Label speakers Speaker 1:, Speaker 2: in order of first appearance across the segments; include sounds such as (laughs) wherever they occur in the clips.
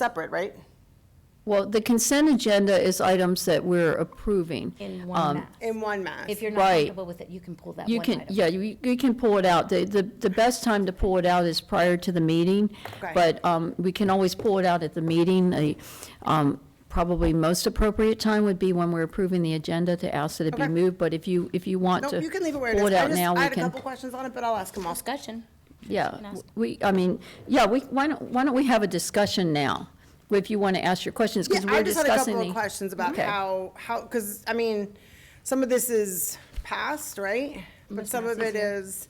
Speaker 1: separate, right?
Speaker 2: Well, the consent agenda is items that we're approving.
Speaker 3: in
Speaker 2: Um,
Speaker 3: one mass.
Speaker 1: In one mass.
Speaker 3: If you're not
Speaker 2: Right.
Speaker 3: comfortable with it, you can pull that
Speaker 2: You
Speaker 3: one
Speaker 2: can,
Speaker 3: item.
Speaker 2: yeah, you, you can pull it out. The, the, the best time to pull it out is prior to the meeting.
Speaker 1: Okay.
Speaker 2: But, um, we can always pull it out at the meeting. A, um, probably most appropriate time would be when we're approving the agenda to ask that it be
Speaker 1: Okay.
Speaker 2: moved. But if you, if you want
Speaker 1: Nope,
Speaker 2: to.
Speaker 1: you can leave it where it is.
Speaker 2: Pull it
Speaker 1: I
Speaker 2: out
Speaker 1: just-
Speaker 2: now,
Speaker 1: I
Speaker 2: we
Speaker 1: had a
Speaker 2: can,
Speaker 1: couple questions on it, but I'll ask them all.
Speaker 3: Discussion. can
Speaker 2: yeah.
Speaker 3: ask.
Speaker 2: We, I mean, yeah, we, why don't, why don't we have a discussion now? If you want to ask your questions,
Speaker 1: Yeah,
Speaker 2: because
Speaker 1: I
Speaker 2: we're
Speaker 1: just had a
Speaker 2: discussing
Speaker 1: couple of
Speaker 2: the.
Speaker 1: questions about
Speaker 2: Okay.
Speaker 1: how, how, because, I mean, some of this is past, right? But some of it is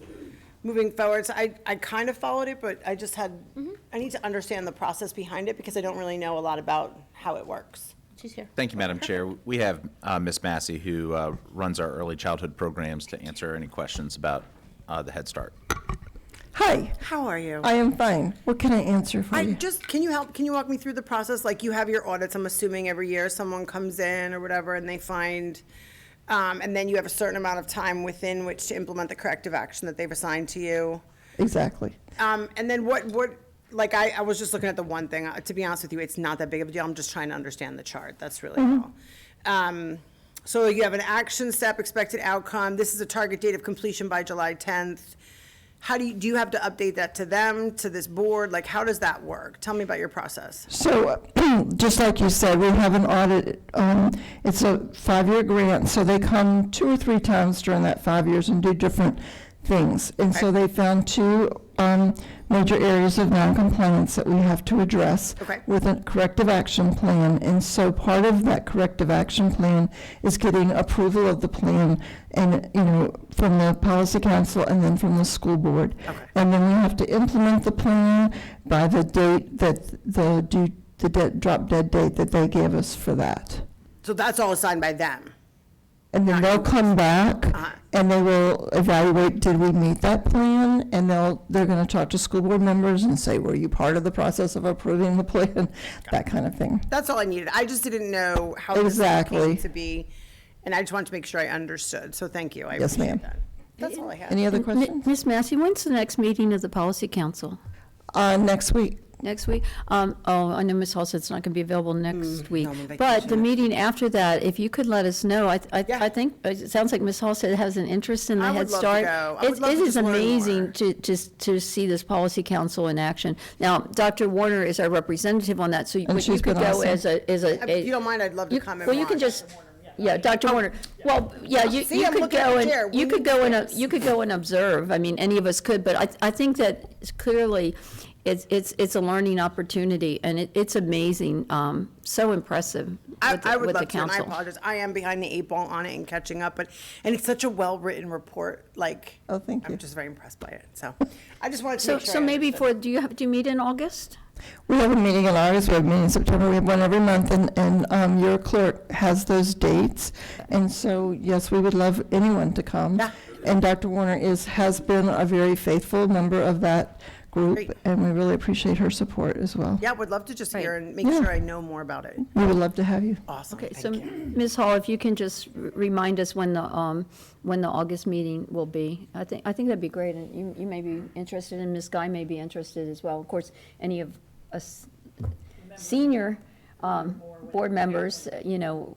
Speaker 1: moving forward, so I, I kind of followed it, but I just had,
Speaker 2: Mm-hmm.
Speaker 1: I need to understand the process behind it, because I don't really know a lot about how it works.
Speaker 3: She's here.
Speaker 4: Thank you, Madam Chair. We have uh, Ms. Massey, who uh, runs our early childhood programs, to answer any questions about uh, the Head Start.
Speaker 5: Hi,
Speaker 1: How are you?
Speaker 5: I am fine. What can I answer for
Speaker 1: I
Speaker 5: you?
Speaker 1: just, can you help, can you walk me through the process? Like, you have your audits, I'm assuming every year, someone comes in or whatever, and they find, um, and then you have a certain amount of time within which to implement the corrective action that they've assigned to you.
Speaker 5: Exactly.
Speaker 1: Um, and then what, what, like, I, I was just looking at the one thing, Uh, to be honest with you, it's not that big of a deal, I'm just trying to understand the chart, that's really
Speaker 5: Mm-hmm.
Speaker 1: all. Um, so you have an action step, expected outcome, this is a target date of completion by July tenth. How do you, do you have to update that to them, to this board, like, how does that work? Tell me about your process.
Speaker 5: So, (clears throat) just like you said, we have an audit, um, it's a five-year grant, so they come two or three times during that five years and do different things. And so they found two, um, major areas of noncompliance that we have to address
Speaker 1: Okay.
Speaker 5: with a corrective action plan. And so part of that corrective action plan is getting approval of the plan and, you know, from the policy council and then from the school board.
Speaker 1: Okay.
Speaker 5: And then we have to implement the plan by the date that the due, the de- drop dead date that they gave us for that.
Speaker 1: So that's all assigned by them.
Speaker 5: And then they'll come back
Speaker 1: Uh-huh.
Speaker 5: and they will evaluate, did we meet that plan? And they'll, they're gonna talk to school board members and say, were you part of the process of approving the plan? (laughs) That kind of thing.
Speaker 1: That's all I needed. I just didn't know how this all came
Speaker 5: Exactly.
Speaker 1: to be, and I just wanted to make sure I understood, so thank you. I
Speaker 5: Yes, ma'am.
Speaker 1: appreciate that. That's all I had.
Speaker 5: Any other
Speaker 2: Mi-
Speaker 5: questions?
Speaker 2: Ms. Massey, when's the next meeting of the policy council?
Speaker 5: Uh, next week,
Speaker 2: Next week? Um, oh, I know Ms. Hall said it's not going to be available
Speaker 1: Mm,
Speaker 2: next week.
Speaker 1: I'm on
Speaker 2: But the meeting after that, if you could let us know, I, I,
Speaker 1: Yeah.
Speaker 2: I think, it sounds like Ms. Hall said has an interest in
Speaker 1: I
Speaker 2: the
Speaker 1: would love
Speaker 2: Head
Speaker 1: to
Speaker 2: Start.
Speaker 1: go. I
Speaker 2: It-
Speaker 1: would love to
Speaker 2: It is
Speaker 1: just learn more.
Speaker 2: amazing to, to, to see this policy council in action. Now, Dr. Warner is our representative on that, so you you
Speaker 5: Oh, she's
Speaker 2: could
Speaker 5: been
Speaker 2: go
Speaker 5: awesome.
Speaker 2: as a, as a.
Speaker 1: If you don't mind, I'd love to
Speaker 2: you-
Speaker 1: come and
Speaker 2: Well, you can
Speaker 1: watch.
Speaker 2: just, yeah, Dr. Warner, well, yeah, you,
Speaker 1: See,
Speaker 2: you
Speaker 1: I'm
Speaker 2: could
Speaker 1: looking at
Speaker 2: go
Speaker 1: the chair.
Speaker 2: and,
Speaker 1: We
Speaker 2: you could
Speaker 1: need
Speaker 2: go and, you could go and observe, I mean, any of us could, but I, I think that it's clearly, it's, it's, it's a learning opportunity, and it, it's amazing, um, so impressive
Speaker 1: I,
Speaker 2: with
Speaker 1: I
Speaker 2: the,
Speaker 1: would
Speaker 2: with the
Speaker 1: love to, and I
Speaker 2: council.
Speaker 1: apologize. I am behind the eight ball on it and catching up, but, and it's such a well-written report, like.
Speaker 5: Oh, thank
Speaker 1: I'm
Speaker 5: you.
Speaker 1: just very impressed by it,
Speaker 2: (laughs)
Speaker 1: so. I just wanted to
Speaker 2: So,
Speaker 1: make sure.
Speaker 2: so
Speaker 1: I
Speaker 2: maybe
Speaker 1: understood.
Speaker 2: for, do you have, do you meet in August?
Speaker 5: We have a meeting in August, we have a meeting in September, we have one every month, and, and um, your clerk has those dates. And so, yes, we would love anyone to come.
Speaker 1: Yeah.
Speaker 5: And Dr. Warner is, has been a very faithful member of that
Speaker 1: Great.
Speaker 5: group, and we really appreciate her support as well.
Speaker 1: Yeah, would love to just hear
Speaker 2: Right.
Speaker 1: and make
Speaker 5: Yeah.
Speaker 1: sure I know more about it.
Speaker 5: We would love to have you.
Speaker 1: Awesome,
Speaker 2: Okay, so,
Speaker 1: thank you.
Speaker 2: Ms. Hall, if you can just r- remind us when the, um, when the August meeting will be, I think, I think that'd be great, and you, you may be interested, and Ms. Guy may be interested as well. Of course, any of us senior, um, board members, uh, you know,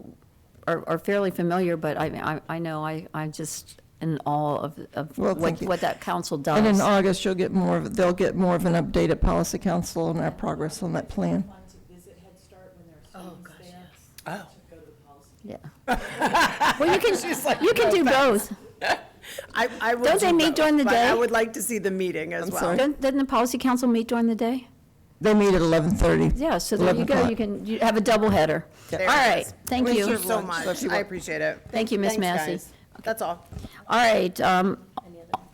Speaker 2: are, are fairly familiar, but I, I, I know, I, I'm just in awe of, of
Speaker 5: Well,
Speaker 2: what,
Speaker 5: thank you.
Speaker 2: what that council
Speaker 5: And in
Speaker 2: does.
Speaker 5: August, you'll get more, of they'll get more of an update at Policy Council on our progress on that plan.
Speaker 6: fun to visit Head Start when there are students there. Oh. To go to the policy
Speaker 2: Yeah.
Speaker 5: (laughs)
Speaker 2: Well, you can, you can do both.
Speaker 1: I, I will
Speaker 2: Don't they
Speaker 1: do
Speaker 2: meet
Speaker 1: both,
Speaker 2: during the
Speaker 1: but I
Speaker 2: day?
Speaker 1: would like to see the meeting as well.
Speaker 5: sorry.
Speaker 2: Doesn't doesn't the policy council meet during the day?
Speaker 5: They meet at 11:30.
Speaker 2: Yeah, so there you
Speaker 5: 11
Speaker 2: go,
Speaker 5: o'clock.
Speaker 2: you can, you have a doubleheader. All
Speaker 1: it
Speaker 2: right,
Speaker 1: is.
Speaker 2: thank
Speaker 1: Thank you
Speaker 2: you.
Speaker 1: so
Speaker 5: lunch, so if
Speaker 1: much.
Speaker 5: you
Speaker 1: I
Speaker 5: want-
Speaker 1: appreciate it.
Speaker 2: Thank you, Ms.
Speaker 1: Thanks,
Speaker 2: Massey.
Speaker 1: guys. That's all.
Speaker 2: All right, um,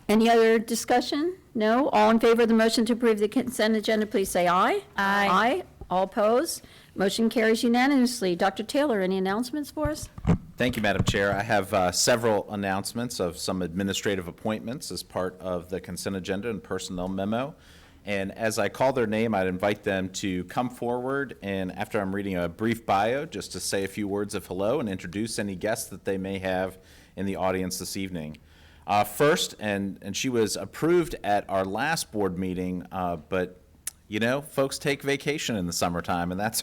Speaker 2: any other discussion? No? All in favor of the motion to approve the consent agenda, please say aye.
Speaker 3: Aye.
Speaker 2: Aye, all opposed? Motion carries unanimously. Dr. Taylor, any announcements for us?
Speaker 4: Thank you, Madam Chair. I have uh, several announcements of some administrative appointments as part of the consent agenda and personnel memo. And as I call their name, I'd invite them to come forward and after I'm reading a brief bio, just to say a few words of hello and introduce any guests that they may have in the audience this evening. Uh, First, and, and she was approved at our last board meeting, uh, but You know, folks take vacation in the summertime, and that's